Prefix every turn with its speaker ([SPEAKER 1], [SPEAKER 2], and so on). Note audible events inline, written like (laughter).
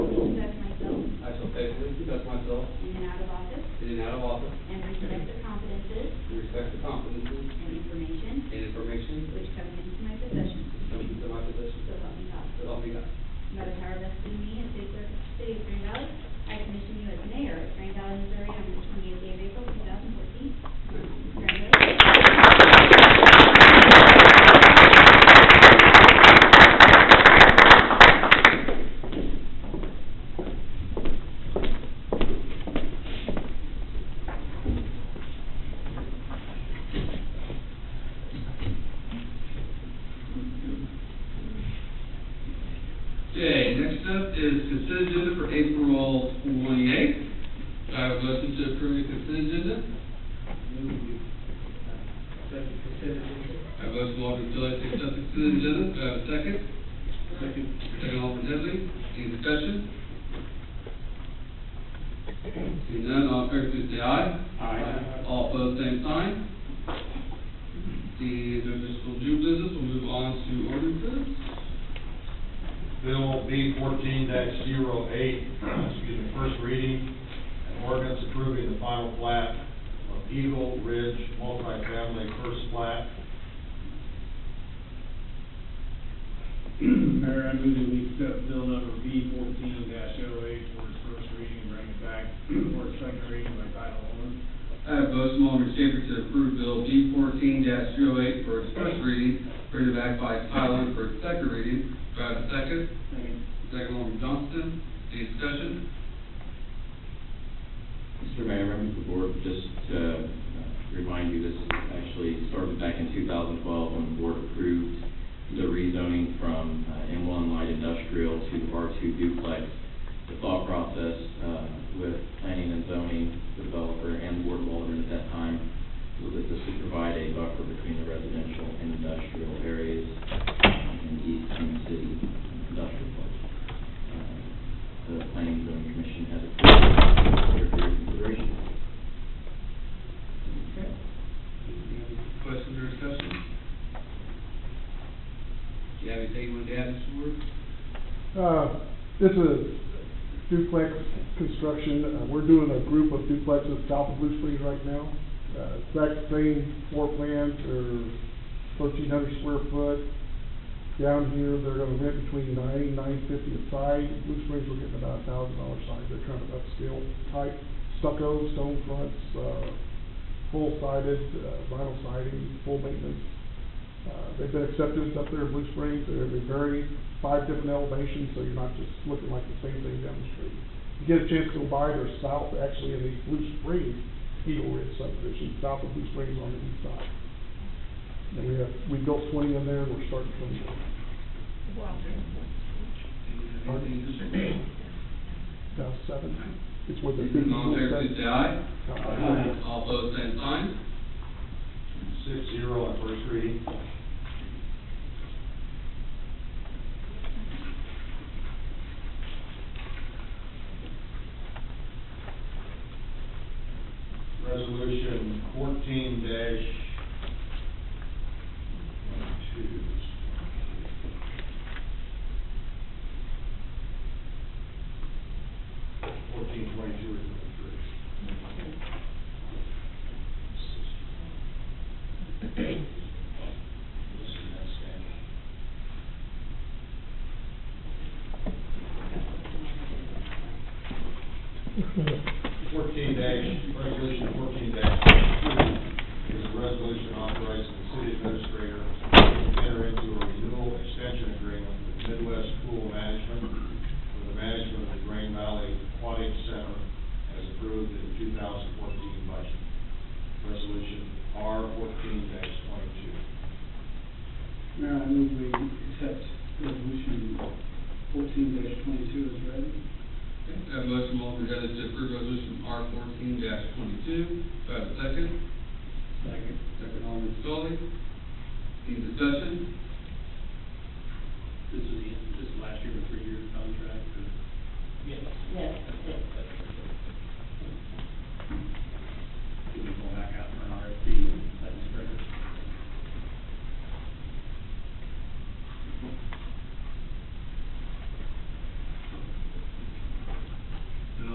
[SPEAKER 1] consent agenda for April twenty-eighth. I have a motion to approve the consent agenda.
[SPEAKER 2] Second consent agenda.
[SPEAKER 1] I have a motion from Alderman Gillette to accept the consent agenda. Do I have a second?
[SPEAKER 2] Second.
[SPEAKER 1] Second Alderman Headley. Any discussion? Seeing none, all in favor, please say aye.
[SPEAKER 2] Aye.
[SPEAKER 1] All opposed, same sign. The, there's just new business, we'll move on to ordinances.
[SPEAKER 3] Bill B fourteen 8 excuse me, first reading, an ordinance approving the final plat of Eagle Ridge multifamily first plat.
[SPEAKER 4] (clears throat) Mayor, I move that we accept bill number B fourteen 8 for its first reading and bring it back for its second reading by title only.
[SPEAKER 1] I have a motion, Alderman Schaper, to approve Bill G fourteen 8 for its first reading, bring it back by title only for its second reading. Do I have a second?
[SPEAKER 4] Second.
[SPEAKER 1] Second, Alderman Johnston. Any discussion?
[SPEAKER 5] Mr. Mayor, members of the board, just to uh, remind you, this actually started back in 2012 when the board approved the rezoning from uh, M1 light industrial to R2 duplex. The thought process uh, with planning and zoning developer and board of aldermen at that time was that this would provide a buffer between the residential and industrial areas um, in East Kansas City industrial park. Uh, The planning and zoning commission has approved it for your consideration.
[SPEAKER 1] Any Questions or discussion? Do you have anything you want to add, Mr. Ward?
[SPEAKER 6] Uh, This is duplex construction. Uh, We're doing a group of duplexes south of Blue Springs right now. Uh, Exact same floor plans are thirteen hundred square foot. Down here, they're gonna rent between nine, nine fifty a side. Blue Springs, we're getting about a thousand dollar side. They're kind of upscale type stucco, stone fronts, uh, full sided, uh, vinyl siding, full maintenance. Uh, They've been accepted up there in Blue Springs, they're gonna be very, five different elevations, so you're not just looking like the same thing down the street. You get a chance to go by, they're south, actually, in the Blue Springs, Eagle Ridge subdivision, south of Blue Springs on the east side. And we have, we built twenty in there, and we're starting twenty more. Pardon? Now, seven, it's where the.
[SPEAKER 1] Seeing none, all in favor, please say aye.
[SPEAKER 6] Uh,
[SPEAKER 1] All opposed, same sign.
[SPEAKER 3] Six zero on first reading. Resolution fourteen dash two. Fourteen twenty-two or twenty-three. Fourteen dash, resolution fourteen dash two is a resolution authorizing the city administrator to enter into a renewal extension agreement with Midwest Pool Management for the management of the Green Valley Aquatic Center as approved in two thousand fourteen budget. Resolution R fourteen dash twenty-two.
[SPEAKER 2] Mayor, I move we accept resolution fourteen dash twenty-two as read.
[SPEAKER 1] Okay, I have a motion, from Alderman Headley, to approve resolution R fourteen twenty-two. Do I have a second?
[SPEAKER 2] Second.
[SPEAKER 1] Second, Alderman Scully. Any discussion?